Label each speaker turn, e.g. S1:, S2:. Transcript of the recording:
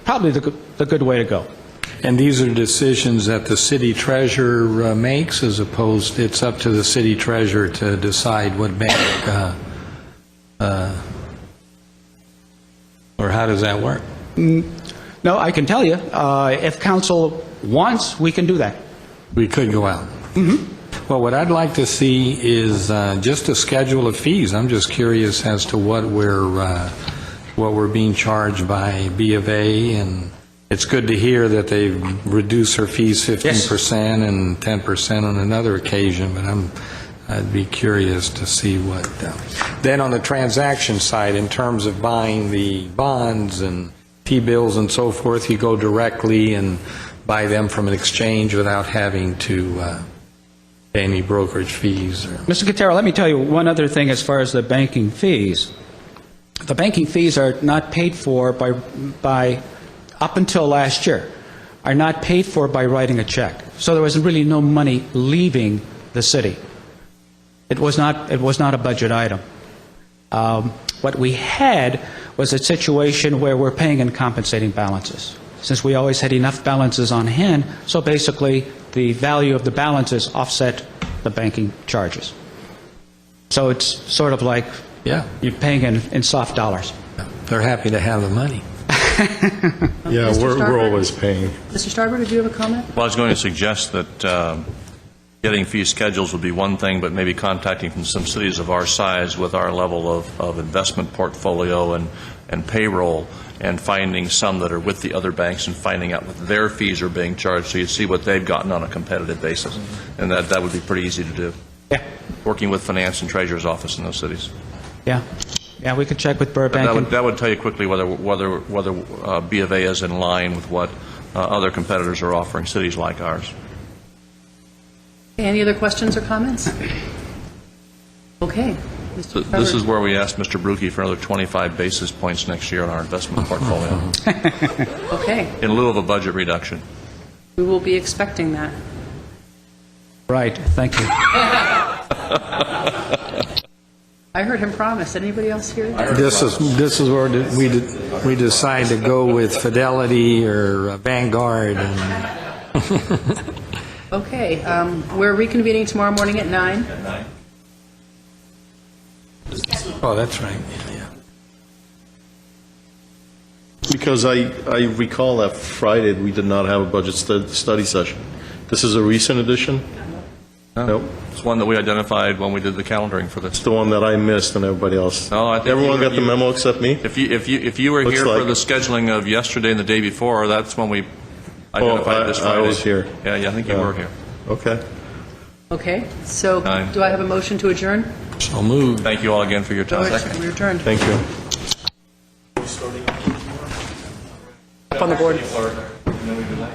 S1: probably the, go- the good way to go.
S2: And these are decisions that the city treasurer uh, makes, as opposed, it's up to the city treasurer to decide what bank, uh, uh, or how does that work?
S1: No, I can tell you, uh, if council wants, we can do that.
S2: We could go out. Well, what I'd like to see is uh, just a schedule of fees. I'm just curious as to what we're, uh, what we're being charged by B of A, and it's good to hear that they've reduced their fees 15% and 10% on another occasion, but I'm, I'd be curious to see what. uh, Then on the transaction side, in terms of buying the bonds and T-bills and so forth, you go directly and buy them from an exchange without having to uh, pay any brokerage fees or...
S1: Mr. Katara, let me tell you one other thing as far as the banking fees. The banking fees are not paid for by, by, up until last year, are not paid for by writing a check. So there was really no money leaving the city. It was not, it was not a budget item. Um, What we had was a situation where we're paying and compensating balances, since we always had enough balances on hand, so basically, the value of the balances offset the banking charges. So it's sort of like
S2: Yeah,
S1: you're paying in, in soft dollars.
S2: they're happy to have the money.
S3: Yeah,
S4: Mr.
S3: we're, we're
S4: Starbird?
S3: always paying.
S4: Mr. Starbird, did you have a comment?
S5: Well, I was going to suggest that um, getting fee schedules would be one thing, but maybe contacting from some cities of our size with our level of, of investment portfolio and, and payroll, and finding some that are with the other banks and finding out what their fees are being charged, so you see what they've gotten on a competitive basis. And that, that would be pretty easy to do,
S1: Yeah,
S5: working with finance and treasurer's office in those cities.
S1: yeah, yeah, we could check with Burbank.
S5: That would,
S1: and-
S5: that would tell you quickly whether, whether, whether uh, B of A is in line with what uh, other competitors are offering, cities like ours.
S4: Any other questions or comments? Okay. Mr.
S5: Th- This
S4: Starbird.
S5: is where we asked Mr. Brookie for another 25 basis points next year on our investment portfolio,
S4: Okay,
S5: in lieu of a budget reduction.
S4: we will be expecting that.
S1: Right, thank you.
S4: I heard him promise. Anybody else hear? that?
S2: This is, this is where de- we, de- we decide to go with Fidelity or Vanguard and...
S4: Okay, um, we're reconvening tomorrow morning at nine.
S2: Oh, that's right, yeah.
S3: Because I, I recall that Friday, we did not have a budget stu- study session. This is a recent addition? Nope.
S5: It's one that we identified when we did the calendaring for this.
S3: It's the one that I missed and everybody else.
S5: No, I think you
S3: Everyone
S5: were-
S3: got the
S5: you-
S3: memo except me?
S5: If you, if you, if you were
S3: Looks
S5: here for
S3: like-
S5: the scheduling of yesterday and the day before, that's when we
S3: I-
S5: identified this
S3: I
S5: Friday.
S3: was here.
S5: Yeah, yeah, I think you
S3: Yeah.
S5: were here.
S3: Okay.
S4: Okay, so
S5: Nine.
S4: do I have a motion to adjourn?
S2: So moved.
S5: Thank you all again for your time.
S4: We're adjourned.
S3: Thank you.
S4: Up on the board.